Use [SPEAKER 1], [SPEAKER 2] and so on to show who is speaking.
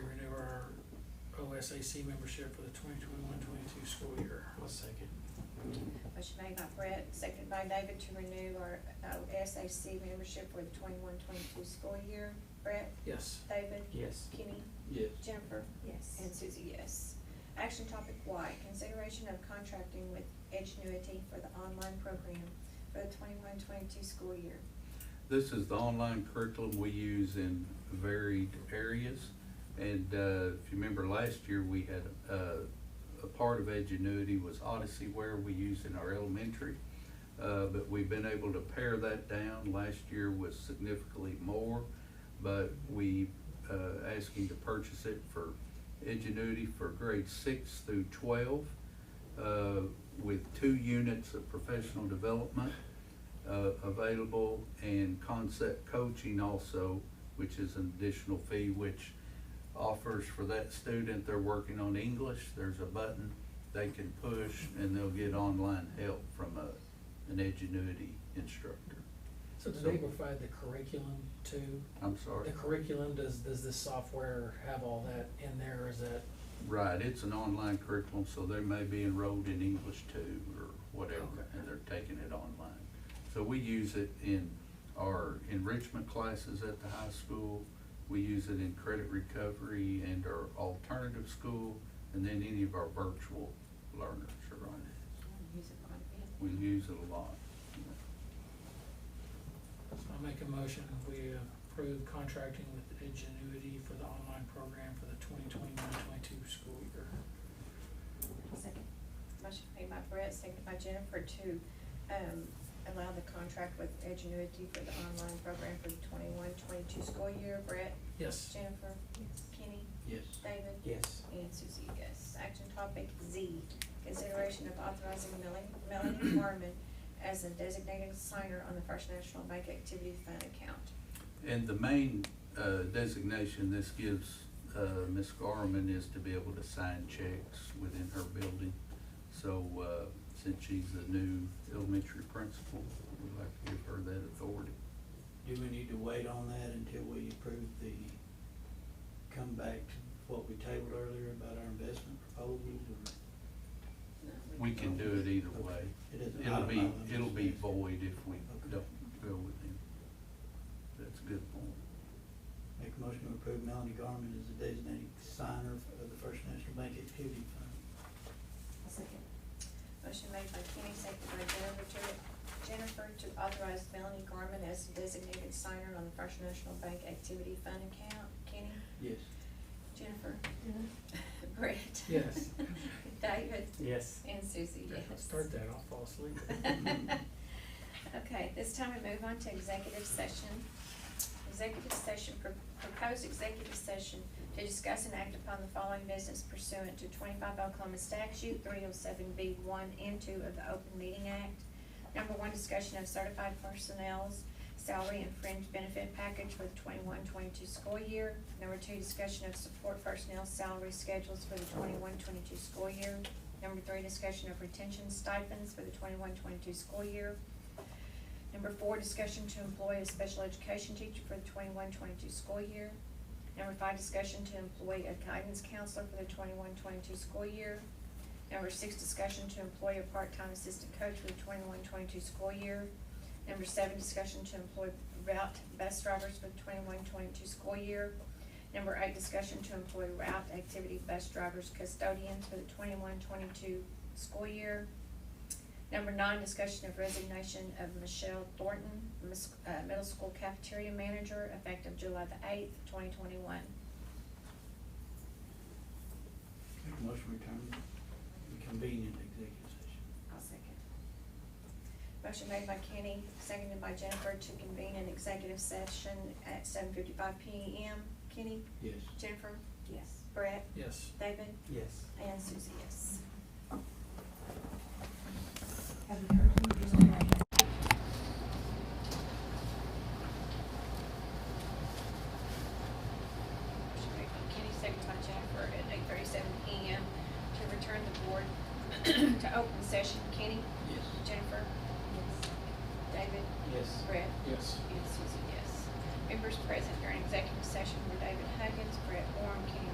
[SPEAKER 1] SAC membership for the 2021-22 school year.
[SPEAKER 2] I'll second.
[SPEAKER 3] Motion made by Brett, seconded by David to renew our uh, SAC membership for the 21-22 school year. Brett,
[SPEAKER 1] Yes,
[SPEAKER 3] David,
[SPEAKER 2] Yes.
[SPEAKER 3] Kenny,
[SPEAKER 2] Yes.
[SPEAKER 3] Jennifer,
[SPEAKER 4] Yes.
[SPEAKER 3] and Susie, yes. Action topic Y, consideration of contracting with Edgenuity for the online program for the 21-22 school year.
[SPEAKER 5] This is the online curriculum we use in varied areas. And uh, if you remember last year, we had, uh, a part of Edgenuity was Odyssey Ware we use in our elementary. Uh, But we've been able to pare that down. Last year was significantly more, but we uh, asking to purchase it for Edgenuity for grade six through twelve uh, with two units of professional development uh, available and concept coaching also, which is an additional fee, which offers for that student, they're working on English, there's a button they can push and they'll get online help from a, an Edgenuity instructor.
[SPEAKER 1] so do they provide the curriculum too?
[SPEAKER 5] I'm
[SPEAKER 1] The
[SPEAKER 5] sorry,
[SPEAKER 1] curriculum, does, does this software have all that in there, or is that?
[SPEAKER 5] right, it's an online curriculum, so they may be enrolled in English too or whatever,
[SPEAKER 1] Okay.
[SPEAKER 5] and they're taking it online. So we use it in our enrichment classes at the high school. We use it in credit recovery and our alternative school, and then any of our virtual learners are on it.
[SPEAKER 3] Use it quite a bit.
[SPEAKER 5] We use it a lot.
[SPEAKER 1] I make a motion, we approve contracting with Ingenuity for the online program for the 2021-22 school year.
[SPEAKER 3] Second. Motion made by Brett, seconded by Jennifer to, um, allow the contract with Edgenuity for the online program for the 21-22 school year. Brett,
[SPEAKER 1] Yes,
[SPEAKER 3] Jennifer, Kenny,
[SPEAKER 2] Yes.
[SPEAKER 3] David,
[SPEAKER 2] Yes.
[SPEAKER 3] and Susie, yes. Action topic Z, consideration of authorizing Melanie, Melanie Harmon as a designated signer on the First National Bank Activity Fund account.
[SPEAKER 5] And the main uh, designation this gives uh, Ms. Garman is to be able to sign checks within her building. So uh, since she's the new elementary principal, we'd like to give her that authority.
[SPEAKER 2] Do we need to wait on that until we approve the, come back to what we tabled earlier about our investment proposals or?
[SPEAKER 5] We can do it either way.
[SPEAKER 2] It is-
[SPEAKER 5] It'll be,
[SPEAKER 2] I'm just-
[SPEAKER 5] it'll be void if we don't go with him. That's a good point.
[SPEAKER 2] Make a motion to approve Melanie Garmin as the designated signer of the First National Bank Activity Fund.
[SPEAKER 4] I'll second.
[SPEAKER 3] Motion made by Kenny, seconded by Jennifer to, Jennifer to authorize Melanie Garmin as the designated signer on the First National Bank Activity Fund account. Kenny?
[SPEAKER 2] Yes.
[SPEAKER 3] Jennifer?
[SPEAKER 4] Yeah.
[SPEAKER 3] Brett?
[SPEAKER 1] Yes.
[SPEAKER 3] David?
[SPEAKER 2] Yes.
[SPEAKER 3] And Susie, yes.
[SPEAKER 1] start that, I'll fall asleep.
[SPEAKER 3] Okay, this time we move on to executive session. Executive session, pro- proposed executive session to discuss and act upon the following business pursuant to twenty-five Oklahoma statute, three oh seven B one and two of the Open Meeting Act. Number one, discussion of certified personnel's salary and fringe benefit package for the 21-22 school year. Number two, discussion of support personnel salary schedules for the 21-22 school year. Number three, discussion of retention stipends for the 21-22 school year. Number four, discussion to employ a special education teacher for the 21-22 school year. Number five, discussion to employ a guidance counselor for the 21-22 school year. Number six, discussion to employ a part-time assistant coach for the 21-22 school year. Number seven, discussion to employ route bus drivers for the 21-22 school year. Number eight, discussion to employ route activity bus drivers custodians for the 21-22 school year. Number nine, discussion of resignation of Michelle Thornton, mis- uh, middle school cafeteria manager, effective July the eighth, twenty twenty-one.
[SPEAKER 2] Make a motion to return, to convene into executive session.
[SPEAKER 3] I'll second. Motion made by Kenny, seconded by Jennifer to convene an executive session at seven fifty-five P M. Kenny,
[SPEAKER 2] Yes.
[SPEAKER 3] Jennifer,
[SPEAKER 4] Yes.
[SPEAKER 3] Brett,
[SPEAKER 1] Yes.
[SPEAKER 3] David,
[SPEAKER 2] Yes.
[SPEAKER 3] and Susie, yes.
[SPEAKER 4] Have you heard from the reason why?
[SPEAKER 3] Motion made by Kenny, seconded by Jennifer at eight thirty-seven P M to return the board to open session. Kenny,
[SPEAKER 2] Yes.
[SPEAKER 3] Jennifer, David,
[SPEAKER 2] Yes.
[SPEAKER 3] Brett,
[SPEAKER 1] Yes.
[SPEAKER 3] And Susie, yes. Members present during executive session were David Huggins, Brett Warren, Kenny